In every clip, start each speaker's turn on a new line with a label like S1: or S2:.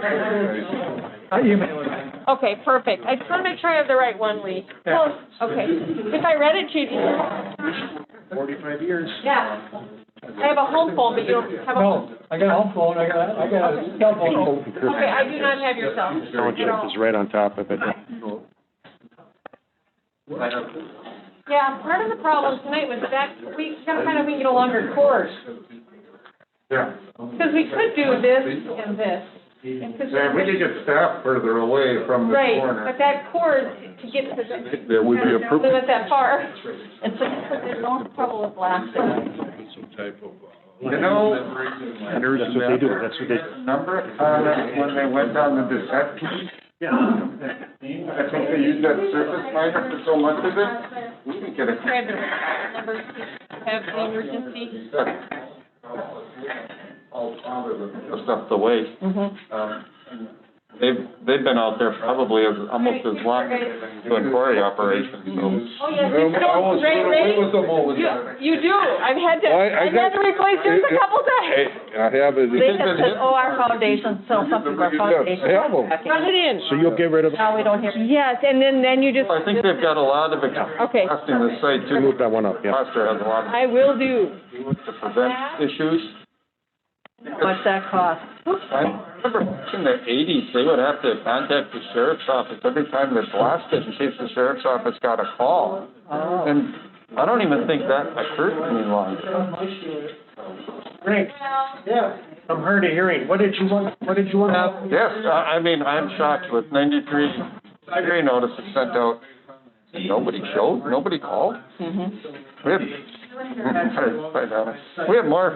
S1: I email it.
S2: Okay, perfect. I just want to make sure I have the right one, Lee. Oh,
S1: Yeah.
S2: Okay. If I read it to you,
S1: Forty-five years.
S2: yeah. I have a home phone, but you don't have a.
S1: No, I got a home phone, I got, I got a cell phone.
S2: Okay, I do not have your cell.
S3: Township
S2: at all.
S3: is right on top of it.
S2: Yeah, part of the problem tonight was that we gotta find out if we can get a longer course.
S4: Yeah,
S2: Because we could do this and this. and this-
S4: yeah, we could get staff further away from the
S2: Right,
S4: corner.
S2: but that cord to get to the,
S4: That would be
S2: limit
S4: appropriate.
S2: that far.
S5: It's because there's no trouble with blasting.
S4: You know,
S3: That's what they do, that's what they do.
S4: remember, uh, when they went down the Deset piece? Yeah. I think they used that surface miner for so much of it, we can get a.
S2: Grab the numbers, have the emergency.
S4: All the stuff to waste. Um, They've, they've been out there probably as, almost as long as they've been doing quarry operations, so.
S2: Oh, yes, you don't, Ray, Ray, you, you do. I've had to,
S6: Well, I- I
S2: I've had
S6: got-
S2: to replace yours a couple
S6: Hey,
S2: times.
S6: I have it.
S5: They just said, oh, our foundation's still something, our foundation's
S6: Have 'em.
S5: cracking."
S2: Run it in.
S3: So you'll get rid of,
S5: Now we don't hear.
S2: Yes, and then, then you just,
S4: I think they've got a lot of
S2: Okay.
S4: experience in the site
S3: you
S4: too.
S3: move that one up, yeah.
S4: Foster has a lot
S2: I will do.
S4: of, to prevent issues.
S5: What's that cost?
S4: I remember back in the eighties, they would have to contact the sheriff's office every time they blasted in case the sheriff's office got a call.
S5: Oh.
S4: And I don't even think that occurred any longer.
S1: Great, yeah. I'm hard of hearing. What did you want, what did you
S4: Uh,
S1: want?
S4: Yes, I, I mean, I'm shocked with ninety-three hearing notices sent out. and Nobody showed, nobody called.
S5: Mm-hmm.
S4: We had, quite honest, we had more,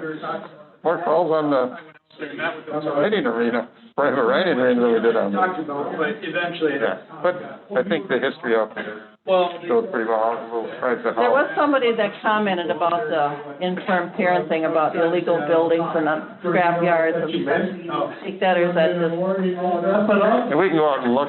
S4: more calls on the, on the writing arena, private writing arena than we did on the.
S7: talked about, but eventually,
S4: Yeah, but I think the history out there
S7: well,
S4: shows pretty well, how little price of
S5: There was
S4: house.
S5: somebody that commented about the infirm parent thing, about illegal buildings and uh, scrap yards and stuff. Take that or is that just
S1: Wrap it up.
S4: And we can go out and look